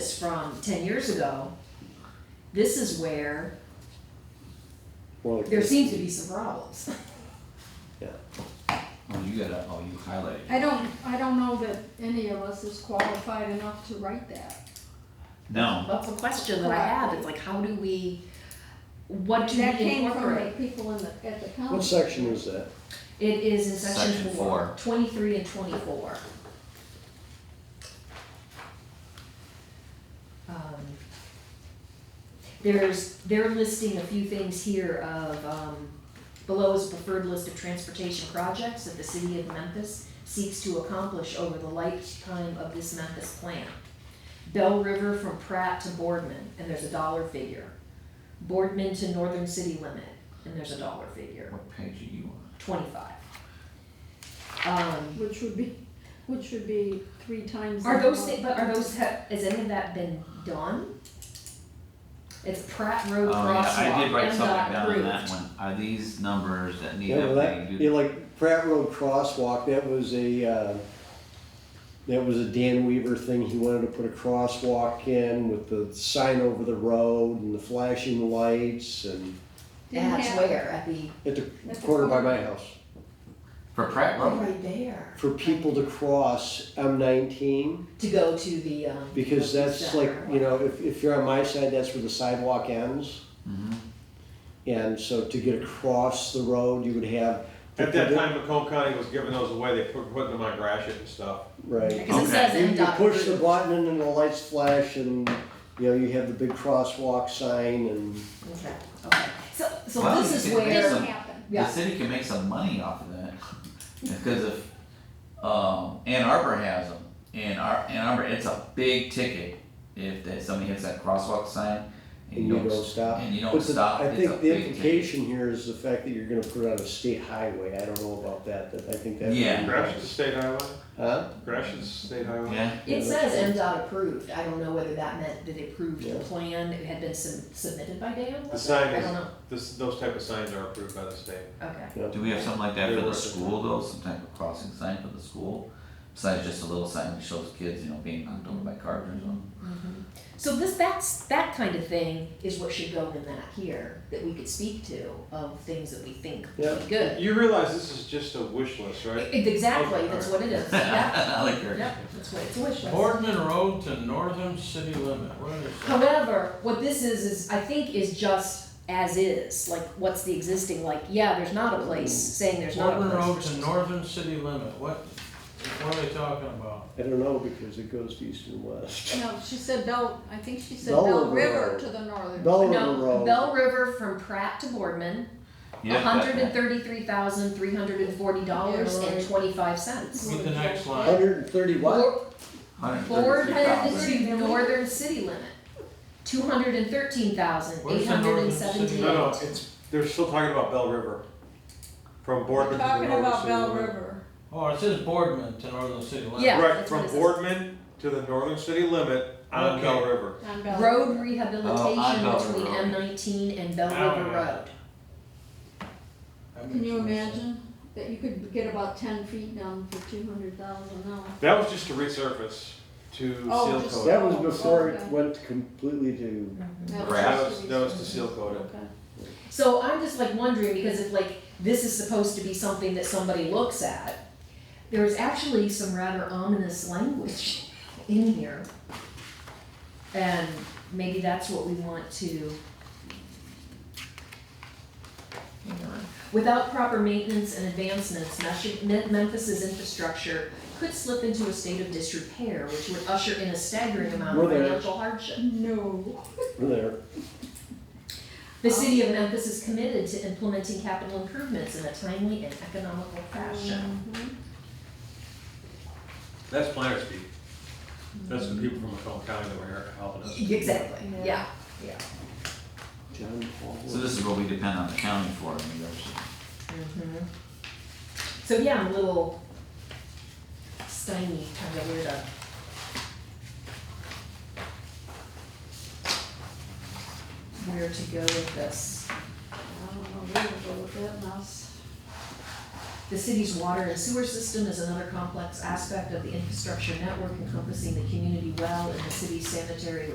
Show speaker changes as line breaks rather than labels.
ten years ago, this is where
Well,
there seems to be some problems.
Oh, you gotta, oh, you highlighted. it.
I don't, I don't know that any of us is qualified enough to write that.
No,
That's a question that I have, it's like, how do we, what do we
That came from the
incorporate?
people in the, at the county.
What section is that?
It is in section
Section
four,
four.
twenty-three and twenty-four. Um, There's, they're listing a few things here of, um, below is a preferred list of transportation projects that the city of Memphis seeks to accomplish over the lifetime of this Memphis plan. Bell River from Pratt to Boardman, and there's a dollar figure. Boardman to Northern City Limit, and there's a dollar figure
what page are you on?
twenty-five. Um,
Which would be, which would be three times.
are
the
those,
amount.
thi- but are those, ha- has any of that been done? It's Pratt Road
Oh, yeah, I
crosswalk, uh,
did write
MDOT
something down on
approved.
that one. Are these numbers that need
Yeah, well, that,
updating?
yeah,
Do-
like Pratt Road Crosswalk, that was a, uh, that was a Dan Weaver thing, he wanted to put a crosswalk in with the sign over the road and the flashing lights and
Didn't
That's
happen.
where, at the,
at the
At the
corner by
corner.
my house.
For Pratt Road?
Oh, right there.
For people to cross M nineteen,
To go to the, um.
because that's like,
center.
you know, if, if you're on my side, that's where the sidewalk ends.
Mm-hmm.
And so to get across the road, you would have.
At that time, Macomb County was giving those away, they put, putting them on Gratiot and stuff.
Right.
Because it
Okay.
says
You, you
MDOT
push the
approved.
button and the lights flash and, you know, you have the big crosswalk sign and,
Okay, okay, so, so
Well,
this is
it- it is
where,
a-
Didn't happen.
The
yeah,
city can make some money off of that, because if, um, Ann Arbor has them, Ann Ar- Ann Arbor, it's a big ticket. If that, somebody hits that crosswalk sign
and you don't stop.
And you don't
But the-
stop,
I
it's a
think the
big ticket.
implication here is the fact that you're gonna put it on a state highway. I don't know about that, that I think that.
Yeah.
Gratiot's a state highway,
Huh?
Gratiot's a state highway.
Yeah,
it says MDOT approved, I don't know whether that meant that it approved the
Yeah.
plan, it had been sub- submitted by Dan,
The
was it?
sign
I don't
is,
know,
this, those type of signs are approved by the state.
okay.
Yeah.
do we have something like that for
There
the
was-
school though, some type of crossing sign for the school? Besides just a little sign that shows kids, you know, being knocked over by cars or something?
So this, that's, that kind of thing is what should go in that here, that we could speak to of things that we think would be good.
You realize this is just a wish list, right?
E- Exactly, that's what it is, yeah,
I like your.
yeah, that's what it's wish list.
Boardman Road to northern city limit, what is that?
However, what this is, is I think is just as is, like what's the existing, like, yeah, there's not a place saying there's not a
Boardman Road
place.
to northern city limit, what, what are they talking about?
I don't know, because it goes east and west.
No, she said Bell, I think she said
Bell
Bell
River.
River to the northern.
Bell River
No,
Road.
Bell River from Pratt to Boardman,
Yeah, that-
hundred and thirty-three thousand, three hundred and forty dollars and twenty-five cents.
Read the next line.
Hundred and thirty what?
Boardman
133,000.
to northern city limit, two hundred and thirteen thousand,
Where's
eight
the
hundred and
northern city?
seventy-eight.
No, no, it's, they're still talking about Bell River. From
We're
Boardman to the
talking
northern
about
city
Bell
limit.
River.
Oh, it says Boardman to northern city limit.
Yeah,
Right,
that's what
from
it says.
Boardman to the northern city limit on
Okay.
Bell River.
on Bell
Road
River.
Oh,
rehabilitation
Bell
between
River.
M nineteen and Bell
Oh,
River
yeah.
Road.
That
Can
makes
you
more sense.
imagine that you could get about ten feet down for two hundred thousand now?
That was just to resurface to
Oh,
seal
just-
coat.
That was before
Okay.
it went completely to,
That was
Grass.
That
just
was,
to
that was
be-
to seal coat it.
Okay.
So I'm just like wondering, because if like, this is supposed to be something that somebody looks at, there's actually some rather ominous language in here. And maybe that's what we want to. Hang on. Without proper maintenance and advancements, Meshi- Mem- Memphis's infrastructure could slip into a state of disrepair, which would usher in a staggering amount of
We're there.
financial hardship.
No.
there.
The city of Memphis is committed to implementing capital improvements in a timely and economical fashion.
Mhm.
That's planner speak. That's the people from Macomb County that were here helping us.
Exactly, yeah.
John Paul.
So this is what we depend on the county for, I mean, there's-
Mhm. So yeah, I'm a little stymied, kind of weird up. Where to go with this?
I don't know, where to go with that mouse.
The city's water and sewer system is another complex aspect of the infrastructure network encompassing the community well and the city's sanitary